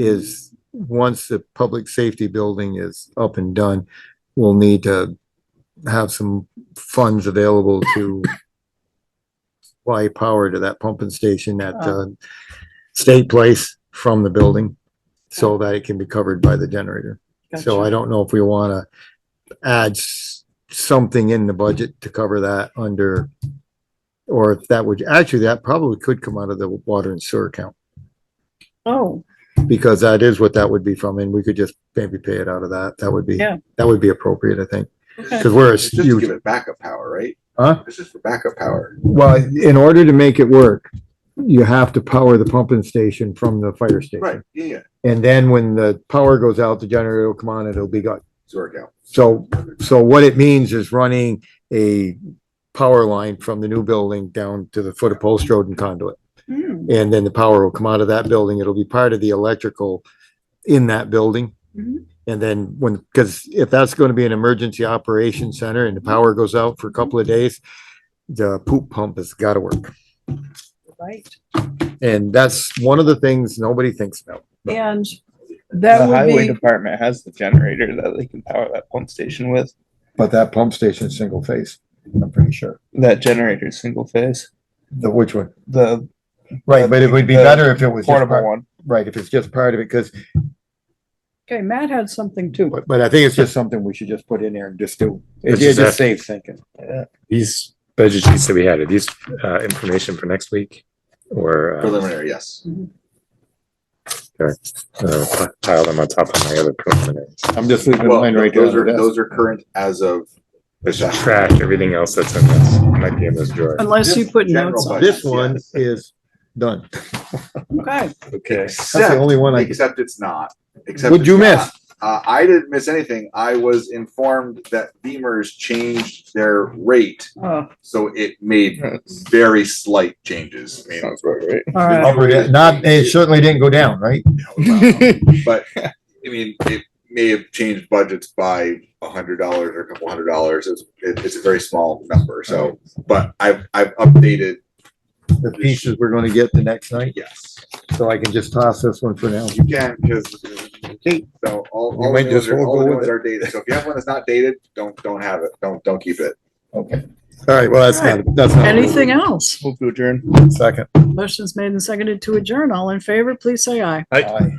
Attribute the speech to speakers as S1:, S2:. S1: is, once the public safety building is up and done, we'll need to have some funds available to supply power to that pumping station at, uh, State Place from the building so that it can be covered by the generator. So I don't know if we want to add s- something in the budget to cover that under, or if that would, actually, that probably could come out of the water and sewer account,
S2: Oh,
S1: because that is what that would be from, and we could just maybe pay it out of that. That would be,
S2: Yeah.
S1: that would be appropriate, I think,
S2: okay.
S1: because we're a
S3: It's just to
S1: huge,
S3: give it backup power, right?
S1: huh?
S3: This is for backup power.
S1: Well, in order to make it work, you have to power the pumping station from the fire station.
S3: Right, yeah, yeah.
S1: And then when the power goes out, the generator will come on, and it'll be gone.
S3: It's work out.
S1: So So what it means is running a power line from the new building down to the foot of Post Road and conduit.
S2: Hmm,
S1: And then the power will come out of that building. It'll be part of the electrical in that building.
S2: Mhm.
S1: And then when, because if that's going to be an emergency operation center and the power goes out for a couple of days, the poop pump has got to work.
S2: Right,
S1: And that's one of the things nobody thinks about.
S2: and
S4: The
S2: that
S4: highway
S2: would be,
S4: department has the generator that they can power that pump station with.
S1: But that pump station is single phase, I'm pretty sure.
S4: That generator is single phase.
S1: The which one? Uh,
S4: The
S1: Right, but it would be
S4: The
S1: better if it was. just
S4: portable
S1: part-
S4: one.
S1: Right, if it's just part of it, because
S2: okay, Matt had something too.
S1: But, but I think it's just something we should just put in there and just do. It
S5: It's
S1: it just
S5: just-
S1: saves thinking.
S5: These budget sheets that we had, are these uh, information for next week? Or uh,
S3: Preliminary, yes.
S5: uh, pile them on top of my other preliminaries?
S1: I'm just leaving
S3: Well,
S1: mine right there.
S3: those
S1: on the
S3: are,
S1: desk.
S3: those are current as of.
S5: There's just trash, everything else that's in this, might be in this drawer.
S2: Unless you
S3: Just
S2: put
S3: general
S2: notes on.
S3: budget.
S1: This one
S3: Yes.
S1: is done.
S2: Okay,
S5: Okay.
S1: That's the only one I,
S3: Except it's not. Except
S1: would
S3: it's
S1: you miss?
S3: not. Uh, I didn't miss anything. I was informed that Beamer's changed their rate,
S2: oh, all
S3: so it made
S4: That's-
S3: very slight changes. I mean,
S4: Sounds about right.
S2: right.
S1: Upper- yeah, Not, it certainly didn't go down, right?
S3: but I mean, it may have changed budgets by a hundred dollars or a couple hundred dollars. It's, it- it's a very small number, so, but I've, I've updated,
S1: The pieces we're gonna get the next night,
S3: yes.
S1: so I can just toss this one for now.
S3: You can, because, so all,
S1: You
S3: all the
S1: might
S3: new
S1: just
S3: ones are,
S1: roll
S3: all the
S1: with
S3: new ones
S1: it.
S3: are dated. So if you have one that's not dated, don't, don't have it. Don't, don't keep it.
S1: Okay. All right, well, Oh, that's not, that's not.
S2: Anything else?
S4: Move to adjourn.
S1: Second.
S2: Motion's made and seconded to adjourn. All in favor, please say aye.
S1: Aye.